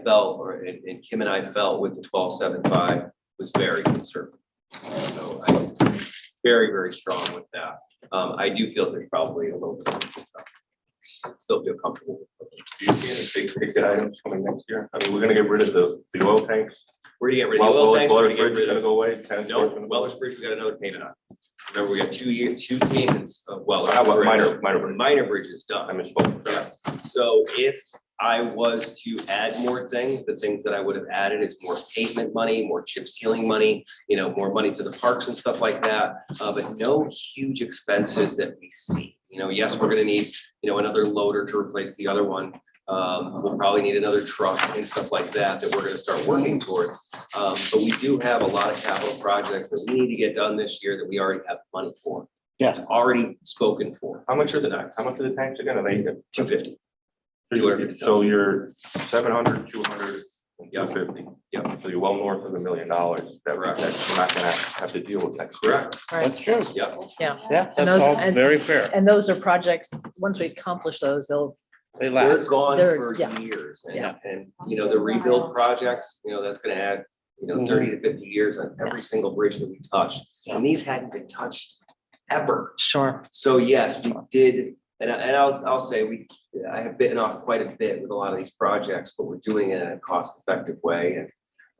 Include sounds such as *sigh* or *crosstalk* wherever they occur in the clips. felt, or and and Kim and I felt with the twelve seven five was very conservative. So I'm very, very strong with that. Um, I do feel there's probably a little bit. of- Still feel comfortable. with it. Do you see any big ticket items coming next year? I mean, we're gonna get rid of the, the oil tanks. We're gonna get rid of the Well, oil tanks, we're Boiler gonna get Bridge is rid gonna of, go away. Tanner's no, gonna go away. Wellers Bridge, we got another payment on. Remember, we got two years, two payments of Wellers. Ah, well, Bridge. minor- minor bridge. Minor bridge is done. I misspoke. Yeah. So if I was to add more things, the things that I would have added is more pavement money, more chip sealing money, you know, more money to the parks and stuff like that. Uh, but no huge expenses that we see. You know, yes, we're gonna need, you know, another loader to replace the other one. Um, we'll probably need another truck and stuff like that, that we're gonna start working towards. Um, but we do have a lot of capital projects that we need to get done this year that we already have money for. Yeah. It's already spoken for, How much is The it? tanks. How much are the tanks again? Are they? two fifty. So you're seven hundred, two hundred, Yeah. two fifty. Yeah. So you're well north of a million dollars. That, Correct. that you're not gonna have to deal with next year. Correct? That's true. Yeah. Yeah, Yeah, that's And those- all and- very fair. and those are projects, once we accomplish those, they'll, They They're last. gone They're- for yeah. years and, Yeah. and, you know, the rebuild projects, you know, that's gonna add, you Mm-hmm. know, thirty to fifty years on every single bridge that we touch. And these hadn't been touched ever. *laughs* sure, So yes, we did, and I, and I'll, I'll say we, I have bitten off quite a bit with a lot of these projects, but we're doing it in a cost effective way and,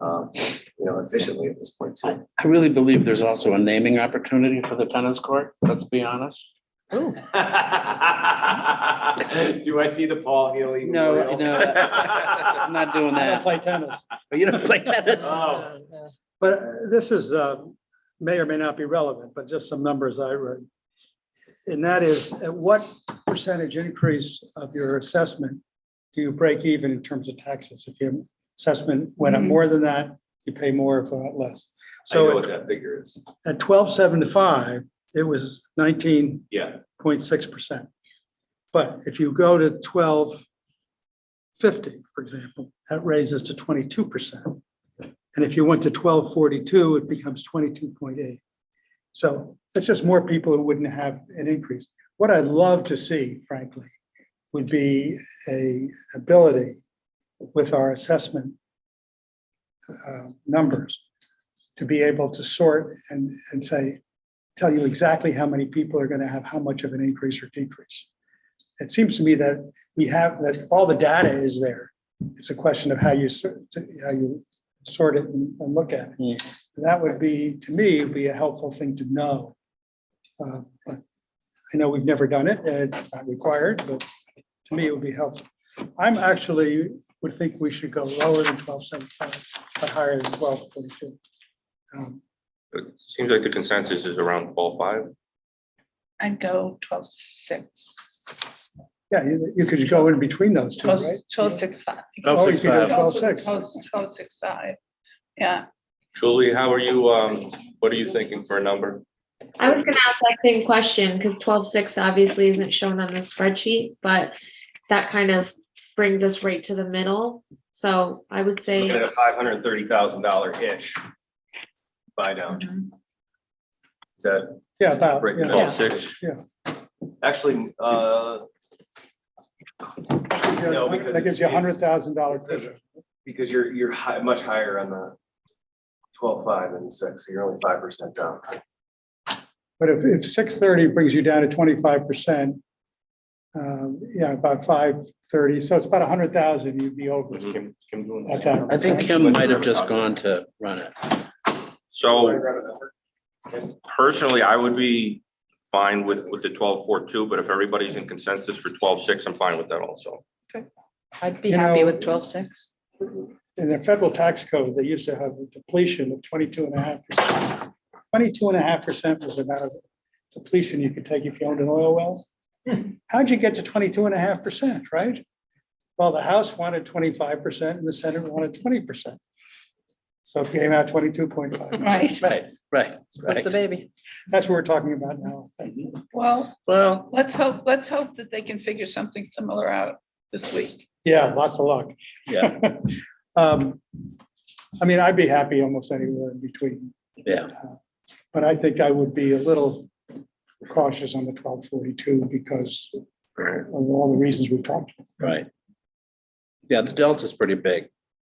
um, you know, efficiently at this point too. *laughs* I really believe there's also a naming opportunity for the tennis court, let's be honest. Do I see the Paul Healy? No, memorial? I'm not doing I don't that. play tennis. But you don't play tennis. Oh. Yeah. But uh, this is, uh, may or may not be relevant, but just some numbers I read. And that is, at what percentage increase of your assessment do you break even in terms of taxes? If your assessment went up more than that, you pay more, if not less. *laughs* I know So what at- that figure is. at twelve seventy-five, it was nineteen Yeah, point six percent. But if you go to twelve fifty, for example, that raises to twenty-two percent. And if you went to twelve forty-two, it becomes twenty-two point eight. So it's just more people who wouldn't have an increase. What I'd love to see, frankly, would be a ability with our assessment uh, numbers to be able to sort and, and say, tell you exactly how many people are gonna have how much of an increase or decrease. It seems to me that we have, that all the data is there. It's a question of how you, sor- to- how you sort it and and look at Yeah. it. That would be, to me, would be a helpful thing to know. Uh, But I know we've never done it, and it's not required, but to me, it would be helpful. I'm actually, would think we should go lower than twelve seventy-five, but higher than twelve forty-two. Um, It Seems like the consensus is around ball five. I'd go twelve six. Yeah, you, you could go in between those two, Twelve, right? twelve six five. Oh, you could go Twelve, twelve six. Twelve six five, yeah. Julie, how are you, um, what are you thinking for a number? I was gonna ask that same question, because twelve six obviously isn't shown on the spreadsheet, but that kind of brings us right to the middle. So I would looking at say, a five hundred and thirty thousand dollar ish. Buy down. Is that Yeah, about, breaking yeah. down? Twelve six. Actually, uh, No, because That gives you a it's- hundred thousand dollar it's- cushion. because you're, you're hi- much higher on the twelve five and six, so you're only five percent down. But if, if six thirty brings you down to twenty-five percent, um, yeah, about five thirty, so it's about a hundred thousand, you'd be over. Mm-hmm. What's Kim- Kim doing? at that. I think Kim might have just gone to run it. So personally, I would be fine with, with the twelve four two, but if everybody's in consensus for twelve six, I'm fine with that also. I'd be You happy know- with twelve six. In the federal tax code, they used to have a depletion of twenty-two and a half percent. Twenty-two and a half percent was the amount of depletion you could take if you owned an oil well. How'd you get to twenty-two and a half percent, right? Well, the House wanted twenty-five percent and the Senate wanted twenty percent. So it came out twenty-two point five. Right, Right, right, With the right. baby. That's what we're talking about now. well, Well, let's hope, let's hope that they can figure something similar out this week. Yeah, lots of luck. *laughs* yeah, *laughs* Um, I mean, I'd be happy almost anywhere in between, Uh, yeah. but I think I would be a little cautious on the twelve forty-two because of all the reasons we've talked. about. Right. Yeah, the delta's pretty big.